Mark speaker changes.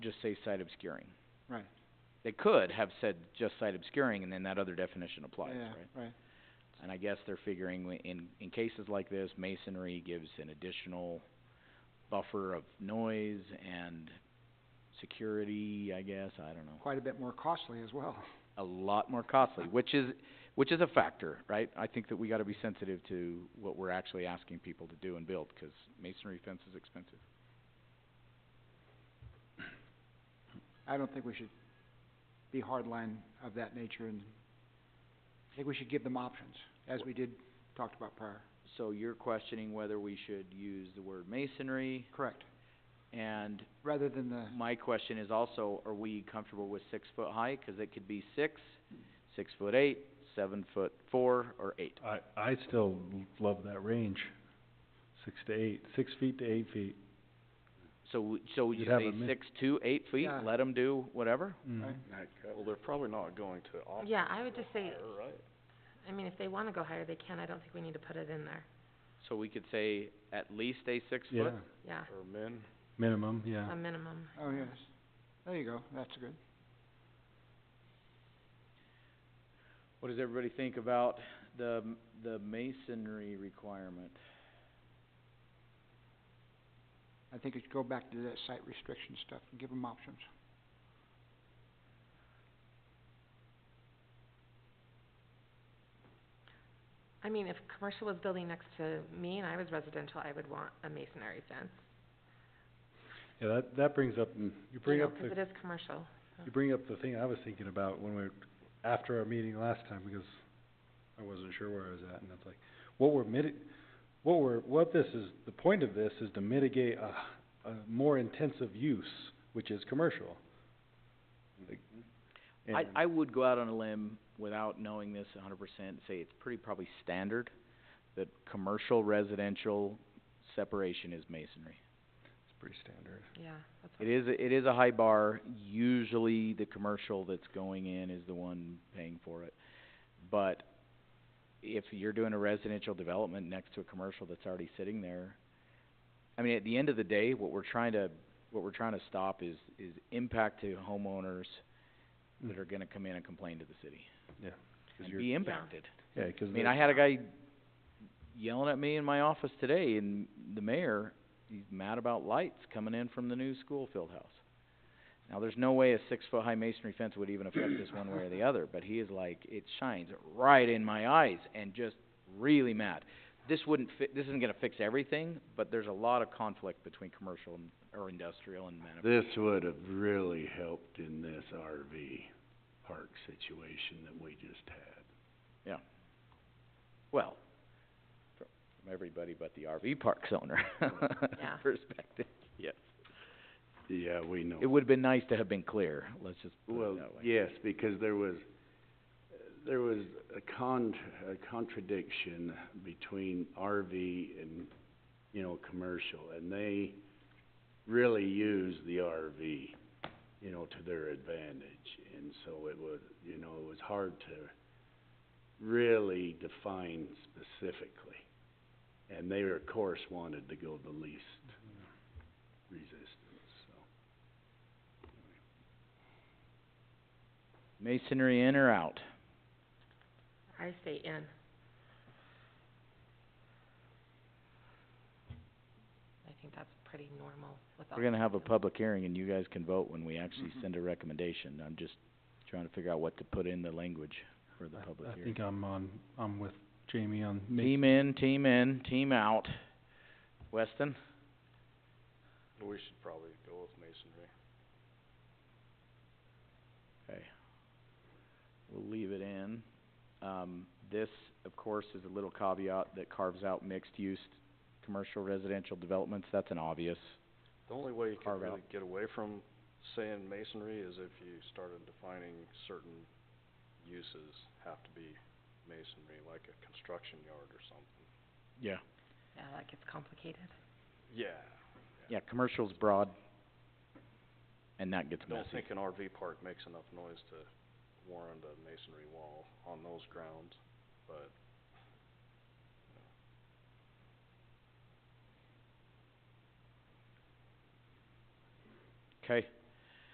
Speaker 1: just say site obscuring.
Speaker 2: Right.
Speaker 1: They could have said just site obscuring and then that other definition applies,
Speaker 2: Yeah,
Speaker 1: right?
Speaker 2: right.
Speaker 1: And I guess they're figuring wi- in, in cases like this, masonry gives an additional buffer of noise and security, I guess, I don't know.
Speaker 2: Quite a bit more costly as well.
Speaker 1: A lot more costly, which is, which is a factor, right? I think that we gotta be sensitive to what we're actually asking people to do and build, 'cause masonry fence is expensive.
Speaker 2: I don't think we should be hardline of that nature and I think we should give them options, as we did, talked about prior.
Speaker 1: So you're questioning whether we should use the word masonry,
Speaker 2: Correct.
Speaker 1: and
Speaker 2: Rather than the,
Speaker 1: my question is also, are we comfortable with six foot high? 'Cause it could be six, six foot eight, seven foot four, or eight.
Speaker 3: I, I still love that range, six to eight, six feet to eight feet.
Speaker 1: So, w- so would you
Speaker 3: You'd have
Speaker 1: say
Speaker 3: a min-
Speaker 1: six to eight feet,
Speaker 2: Yeah.
Speaker 1: let them do whatever?
Speaker 2: Right.
Speaker 4: Well, they're probably not going to offer.
Speaker 5: Yeah, I would just say-
Speaker 4: higher, Right?
Speaker 5: I mean, if they wanna go higher, they can, I don't think we need to put it in there,
Speaker 1: So we could say at least a six
Speaker 3: Yeah,
Speaker 1: foot?
Speaker 5: yeah,
Speaker 4: Or men,
Speaker 3: minimum, yeah.
Speaker 1: Um,
Speaker 5: a minimum.
Speaker 2: oh, yes. There you go, that's good.
Speaker 1: What does everybody think about the, m- the masonry requirement?
Speaker 2: I think it should go back to that site restriction stuff and give them options.
Speaker 5: I mean, if commercial was building next to me and I was residential, I would want a masonry fence,
Speaker 3: Yeah, that, that brings up, you
Speaker 5: you
Speaker 3: bring
Speaker 5: know,
Speaker 3: up
Speaker 5: 'cause
Speaker 3: the,
Speaker 5: it is commercial.
Speaker 3: you bring up the thing I was thinking about when we, were- after our meeting last time, because I wasn't sure where I was at, and it's like, what we're miti- what we're, what this is, the point of this is to mitigate a, a more intensive use, which is commercial. Like,
Speaker 1: Mm-hmm. I,
Speaker 3: and-
Speaker 1: I would go out on a limb without knowing this a hundred percent, say it's pretty probably standard that commercial residential separation is masonry.
Speaker 3: It's pretty standard.
Speaker 5: Yeah, that's what.
Speaker 1: It is, a- it is a high bar, usually the commercial that's going in is the one paying for it. But if you're doing a residential development next to a commercial that's already sitting there, I mean, at the end of the day, what we're trying to, what we're trying to stop is, is impact to homeowners that are gonna come in and complain to the city
Speaker 3: Yeah, Mm. 'cause
Speaker 1: and
Speaker 3: you're-
Speaker 1: be impacted.
Speaker 3: yeah, 'cause
Speaker 1: I mean,
Speaker 3: the-
Speaker 1: I had a guy yelling at me in my office today, and the mayor, he's mad about lights coming in from the new school field house. Now, there's no way a six-foot-high masonry fence would even affect this one way or the other, but he is like, it shines right in my eyes, and just really mad. This wouldn't fi- this isn't gonna fix everything, but there's a lot of conflict between commercial and, or industrial and manuf-
Speaker 6: This would have really helped in this RV park situation that we just had.
Speaker 1: well, fr- from everybody but the RV park's owner
Speaker 5: Yeah.
Speaker 1: perspective, yes.
Speaker 6: Yeah, we know.
Speaker 1: It would've been nice to have been clear, let's just put
Speaker 6: Well,
Speaker 1: it that way.
Speaker 6: yes, because there was, there was a con- a contradiction between RV and, you know, commercial, and they really use the RV, you know, to their advantage. And so it was, you know, it was hard to really define specifically. And they, of course, wanted to go the least resistance, so.
Speaker 1: Masonry in or out?
Speaker 5: I say in. I think that's pretty normal with all.
Speaker 1: We're gonna have a
Speaker 5: public.
Speaker 1: public hearing and you guys can vote when we actually
Speaker 3: Mm-hmm.
Speaker 2: Mhm.
Speaker 1: send a recommendation. I'm just trying to figure out what to put in the language for the
Speaker 3: I-
Speaker 1: public
Speaker 3: I
Speaker 1: hearing.
Speaker 3: think I'm on, I'm with Jamie on ma-
Speaker 1: Team in, team in, team out. Weston?
Speaker 4: we should probably go with masonry.
Speaker 1: Okay. We'll leave it in. Um, this, of course, is a little caveat that carves out mixed-use commercial residential developments. That's an obvious.
Speaker 4: The only way you could
Speaker 1: Carve out.
Speaker 4: really get away from saying masonry is if you started defining certain uses have to be masonry, like a construction yard or something.
Speaker 1: Yeah.
Speaker 5: Yeah, that gets complicated.
Speaker 4: Yeah,
Speaker 1: Yeah, commercial's broad and that gets
Speaker 4: I
Speaker 1: messy.
Speaker 4: don't think an RV park makes enough noise to warrant a masonry wall on those grounds, but
Speaker 1: Okay.